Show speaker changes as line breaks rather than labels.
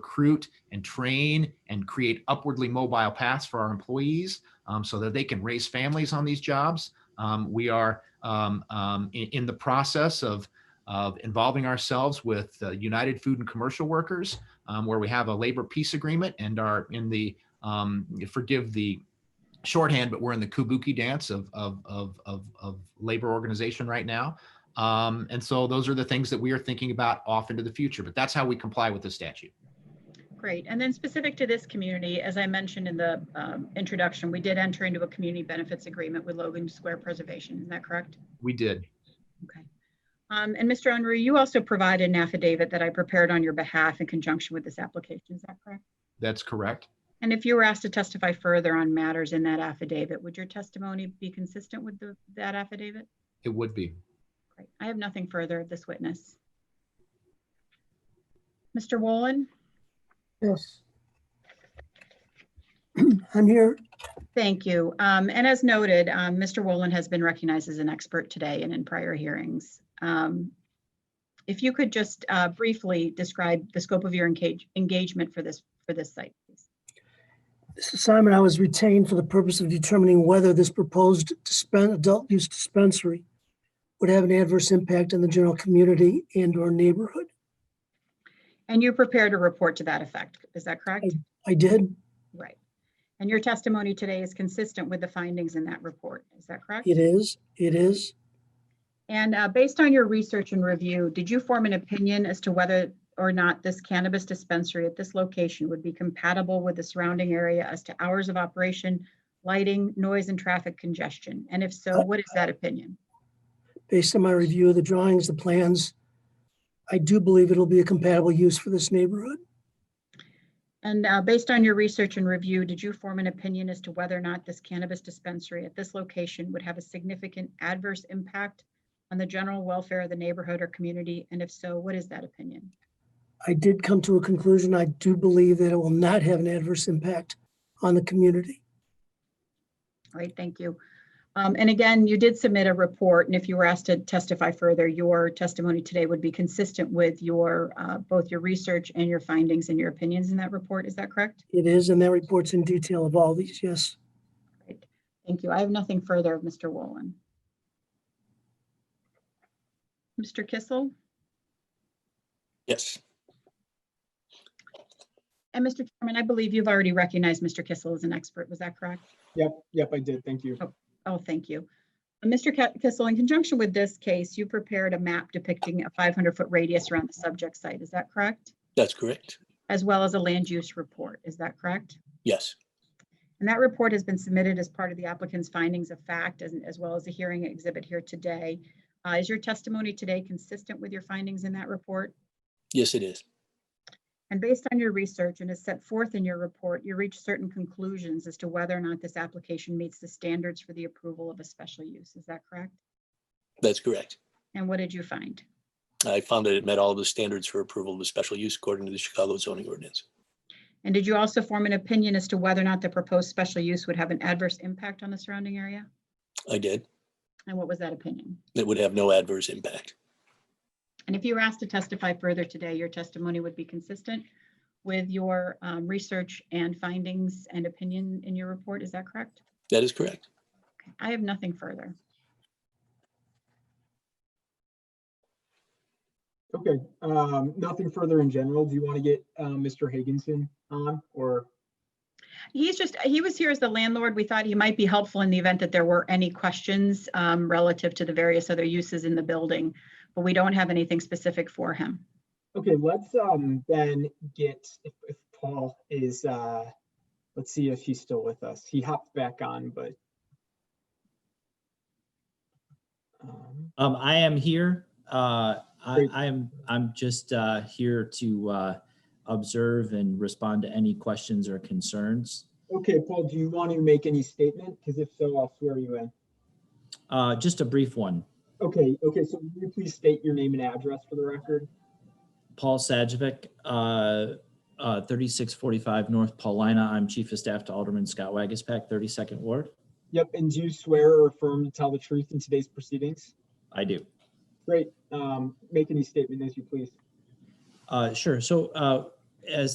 recruit and train and create upwardly mobile paths for our employees um, so that they can raise families on these jobs. Um, we are um, um, in, in the process of, of involving ourselves with uh, United Food and Commercial Workers, um, where we have a labor peace agreement and are in the, um, forgive the shorthand, but we're in the kabuki dance of, of, of, of, of labor organization right now. Um, and so those are the things that we are thinking about off into the future, but that's how we comply with the statute.
Great. And then specific to this community, as I mentioned in the um, introduction, we did enter into a community benefits agreement with Logan Square Preservation. Is that correct?
We did.
Okay. Um, And Mr. Unruh, you also provided an affidavit that I prepared on your behalf in conjunction with this application. Is that correct?
That's correct.
And if you were asked to testify further on matters in that affidavit, would your testimony be consistent with the- that affidavit?
It would be.
Great. I have nothing further of this witness. Mr. Wolin?
Yes. I'm here.
Thank you. Um, And as noted, um, Mr. Wolin has been recognized as an expert today and in prior hearings. Um, If you could just uh, briefly describe the scope of your engage- engagement for this, for this site. please.
This is Simon. I was retained for the purpose of determining whether this proposed dispen- adult use dispensary would have an adverse impact on the general community and or neighborhood.
And you prepared a report to that effect, is that correct?
I did.
Right. And your testimony today is consistent with the findings in that report, is that correct?
It is. It is.
And uh, based on your research and review, did you form an opinion as to whether or not this cannabis dispensary at this location would be compatible with the surrounding area as to hours of operation, lighting, noise, and traffic congestion? And if so, what is that opinion?
Based on my review of the drawings, the plans, I do believe it'll be a compatible use for this neighborhood.
And uh, based on your research and review, did you form an opinion as to whether or not this cannabis dispensary at this location would have a significant adverse impact on the general welfare of the neighborhood or community? And if so, what is that opinion?
I did come to a conclusion. I do believe that it will not have an adverse impact on the community.
All right, thank you. Um, And again, you did submit a report, and if you were asked to testify further, your testimony today would be consistent with your, uh, both your research and your findings and your opinions in that report. Is that correct?
It is, and that reports in detail of all these. Yes.
Great. Thank you. I have nothing further of Mr. Wolin. Mr. Kissel
Yes.
and Mr. Chairman, I believe you've already recognized Mr. Kissel as an expert. Was that correct?
Yep, yep, I did. Thank you.
Oh, thank you. Uh, Mr. Ki- Kissel, in conjunction with this case, you prepared a map depicting a 500-foot radius around the subject site. Is that correct?
That's correct.
as well as a land use report. Is that correct?
Yes.
And that report has been submitted as part of the applicant's findings of fact as, as well as a hearing exhibit here today. Uh, Is your testimony today consistent with your findings in that report?
Yes, it is.
And based on your research and as set forth in your report, you reached certain conclusions as to whether or not this application meets the standards for the approval of a special use. Is that correct?
That's correct.
And what did you find?
I found that it met all the standards for approval of a special use according to the Chicago zoning ordinance.
And did you also form an opinion as to whether or not the proposed special use would have an adverse impact on the surrounding area?
I did.
And what was that opinion?
It would have no adverse impact.
And if you were asked to testify further today, your testimony would be consistent with your um, research and findings and opinion in your report. Is that correct?
That is correct.
Okay, I have nothing further.
Okay, um, nothing further in general. Do you want to get, um, Mr. Higginson on or?
He's just, he was here as the landlord. We thought he might be helpful in the event that there were any questions um, relative to the various other uses in the building, but we don't have anything specific for him.
Okay, let's, um, then get, if, if Paul is, uh, let's see if he's still with us. He hopped back on, but. um,
Um, I am here. Uh, I,
Great.
I'm, I'm just, uh, here to, uh, observe and respond to any questions or concerns.
Okay, Paul, do you want to make any statement? Because if so, I'll swear you in.
Uh, just a brief one.
Okay, okay, so will you please state your name and address for the record?
Paul Sajovic, uh, uh, thirty-six forty-five North Paulina. I'm Chief of Staff to Alderman Scott Wagispack, thirty-second Ward.
Yep, and do you swear or affirm to tell the truth in today's proceedings?
I do.
Great. Um, make any statement as you please.
Uh, sure. So, uh, as